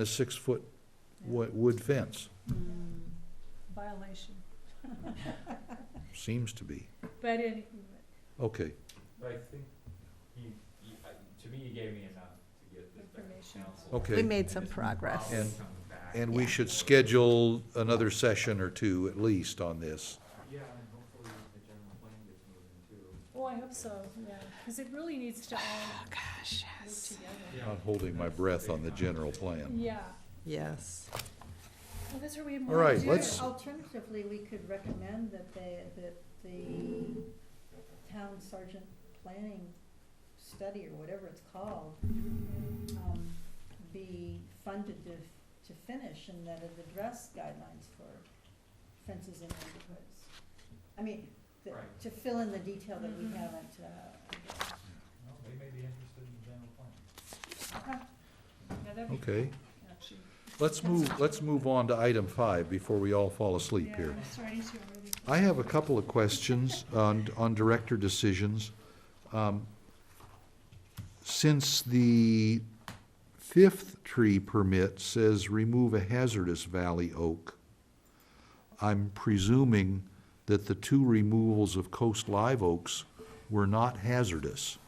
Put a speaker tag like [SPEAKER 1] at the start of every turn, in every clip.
[SPEAKER 1] a six-foot wo- wood fence,
[SPEAKER 2] Violation.
[SPEAKER 1] seems to be.
[SPEAKER 2] But any,
[SPEAKER 1] Okay,
[SPEAKER 3] But I think he, he, I- to me, he gave me enough to get this back to
[SPEAKER 2] Information.
[SPEAKER 3] council.
[SPEAKER 4] We
[SPEAKER 1] okay.
[SPEAKER 4] made some
[SPEAKER 3] It's
[SPEAKER 4] progress.
[SPEAKER 3] probably
[SPEAKER 1] And-
[SPEAKER 3] coming back.
[SPEAKER 1] And we should schedule another session or two at least on this.
[SPEAKER 3] Yeah, and hopefully the general plan gets moving too.
[SPEAKER 2] oh, I hope so, yeah, because it really needs to all move together.
[SPEAKER 3] Yeah,
[SPEAKER 1] Not holding my breath on the general plan.
[SPEAKER 2] Yeah,
[SPEAKER 4] Yes.
[SPEAKER 2] well, that's where we have
[SPEAKER 1] All
[SPEAKER 2] more
[SPEAKER 1] right,
[SPEAKER 2] to do. Oh,
[SPEAKER 1] let's-
[SPEAKER 5] Alternatively, we could recommend that they, that the town sergeant planning study or whatever it's called, um, be funded to, to finish and that it address guidelines for fences in neighborhoods. I mean, the-
[SPEAKER 3] Right.
[SPEAKER 5] to fill in the detail that we
[SPEAKER 2] Mhm.
[SPEAKER 5] haven't, uh,
[SPEAKER 3] No, they may be interested in the general plan.
[SPEAKER 2] Yeah, that'd be
[SPEAKER 1] Okay,
[SPEAKER 2] cool, actually.
[SPEAKER 1] let's move, let's move on to item five before we all fall asleep
[SPEAKER 2] Yeah,
[SPEAKER 1] here.
[SPEAKER 2] I'm starting to already.
[SPEAKER 1] I have a couple of questions on, on director decisions. Um, Since the fifth tree permit says remove a hazardous valley oak, I'm presuming that the two removals of coast live oaks were not hazardous,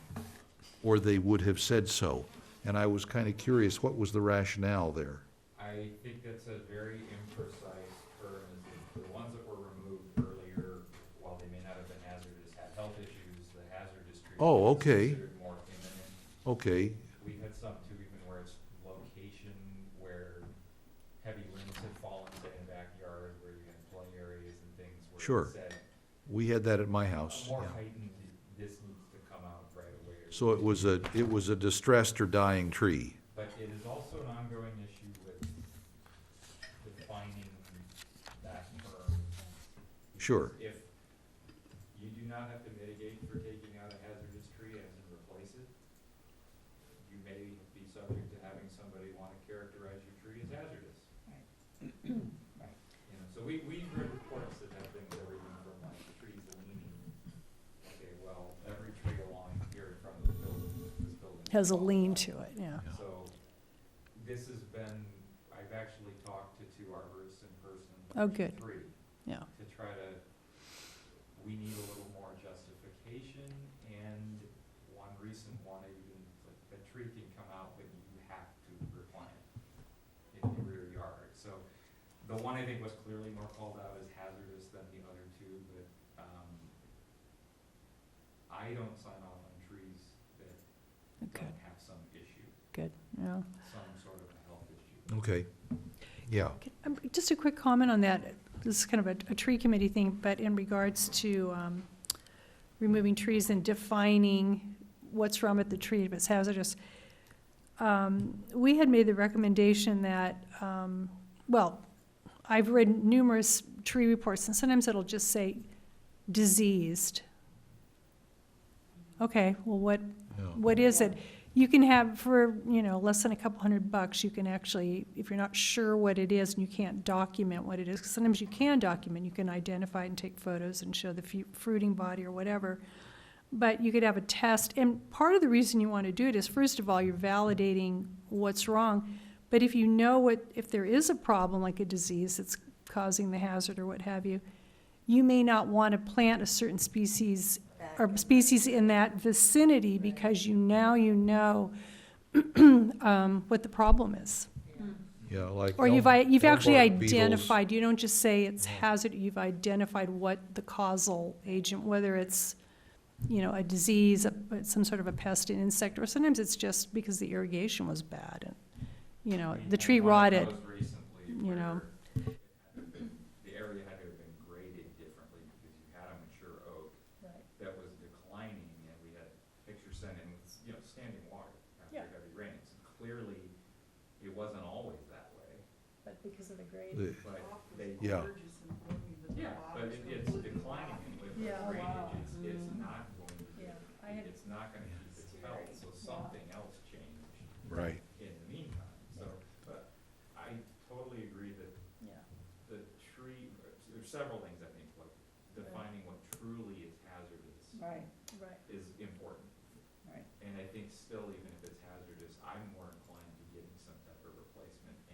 [SPEAKER 1] or they would have said so. And I was kind of curious, what was the rationale there?
[SPEAKER 3] I think that's a very imprecise term, is that the ones that were removed earlier, while they may not have been hazardous, had health issues, the hazardous treatment.
[SPEAKER 1] Oh,
[SPEAKER 3] is
[SPEAKER 1] okay.
[SPEAKER 3] Considered more imminent.
[SPEAKER 1] Okay,
[SPEAKER 3] We've had some too, even where it's location where heavy limbs have fallen, say in the backyard, where you have play areas and things where
[SPEAKER 1] Sure.
[SPEAKER 3] it said,
[SPEAKER 1] we had that at my house.
[SPEAKER 3] more
[SPEAKER 1] yeah.
[SPEAKER 3] heightened, this needs to come out right away. or
[SPEAKER 1] So it was a, it was a distressed or dying tree.
[SPEAKER 3] But it is also an ongoing issue with defining that term.
[SPEAKER 1] Sure.
[SPEAKER 3] If you do not have to mitigate for taking out a hazardous tree and then replace it, you may be subject to having somebody wanna characterize your tree as hazardous.
[SPEAKER 5] Right.
[SPEAKER 3] You know, so we, we've read reports that have things everything from like trees leaning, okay, well, every tree along here in front of the building, this building. is
[SPEAKER 2] Has a
[SPEAKER 3] all
[SPEAKER 2] lean
[SPEAKER 3] about
[SPEAKER 2] to it, yeah.
[SPEAKER 3] so, this has been, I've actually talked to two arborists in person.
[SPEAKER 2] Oh, good.
[SPEAKER 3] Three.
[SPEAKER 2] Yeah.
[SPEAKER 3] To try to, we need a little more justification, and one recent one, even, like, the tree can come out, but you have to replant it in the rear yard. So, the one I think was clearly more called out as hazardous than the other two, but, um, I don't sign off on trees that
[SPEAKER 2] Okay.
[SPEAKER 3] don't have some issue
[SPEAKER 2] Good, yeah.
[SPEAKER 3] some sort of a health issue.
[SPEAKER 1] Okay. Yeah,
[SPEAKER 2] Okay, um, Just a quick comment on that. This is kind of a- a tree committee thing, but in regards to um, removing trees and defining what's wrong with the tree if it's hazardous. Um, We had made the recommendation that, um, well, I've read numerous tree reports, and sometimes it'll just say diseased. Okay, well, what,
[SPEAKER 1] yeah,
[SPEAKER 2] what is it? You can have for, you know, less than a couple hundred bucks, you can actually, if you're not sure what it is and you can't document what it is, 'cause sometimes you can document, you can identify and take photos and show the fu- fruiting body or whatever. But you could have a test, and part of the reason you want to do it is, first of all, you're validating what's wrong. But if you know what, if there is a problem, like a disease that's causing the hazard or what have you, you may not want to plant a certain species
[SPEAKER 5] back.
[SPEAKER 2] or species in that vicinity because you, now you know um, what the problem is.
[SPEAKER 5] Mm.
[SPEAKER 1] yeah, like.
[SPEAKER 2] Or you've,
[SPEAKER 1] elm-
[SPEAKER 2] i- you've
[SPEAKER 1] elm
[SPEAKER 2] actually
[SPEAKER 1] bark beetles.
[SPEAKER 2] identified, you don't just say it's hazard, you've identified what the causal agent, whether it's, you know, a disease, a- but some sort of a pest, an insect, or sometimes it's just because the irrigation was bad and, you know,
[SPEAKER 3] We
[SPEAKER 2] the
[SPEAKER 3] had
[SPEAKER 2] tree
[SPEAKER 3] one of
[SPEAKER 2] rotted.
[SPEAKER 3] those recently
[SPEAKER 2] you know.
[SPEAKER 3] where it had to have been- The area had to have been graded differently because you had a mature oak
[SPEAKER 5] Right.
[SPEAKER 3] that was declining and we had pictures sent in with, you know, standing water after
[SPEAKER 2] Yeah.
[SPEAKER 3] heavy rains. Clearly, it wasn't always that way,
[SPEAKER 5] But because of the grade.
[SPEAKER 1] The-
[SPEAKER 3] but they,
[SPEAKER 1] Yeah,
[SPEAKER 3] yeah, but it- it's declining and with the
[SPEAKER 5] Yeah. Oh, wow.
[SPEAKER 3] drainage, it's, it's not going to,
[SPEAKER 5] Yeah, I
[SPEAKER 3] keep-
[SPEAKER 5] had-
[SPEAKER 3] it's not gonna keep its health, so something else changed.
[SPEAKER 1] right.
[SPEAKER 3] in the meantime, so, but I totally agree that
[SPEAKER 5] Yeah.
[SPEAKER 3] the tree, there's several things I think, like defining what truly is hazardous
[SPEAKER 5] Right. Right.
[SPEAKER 3] is important.
[SPEAKER 5] Right.
[SPEAKER 3] And I think still, even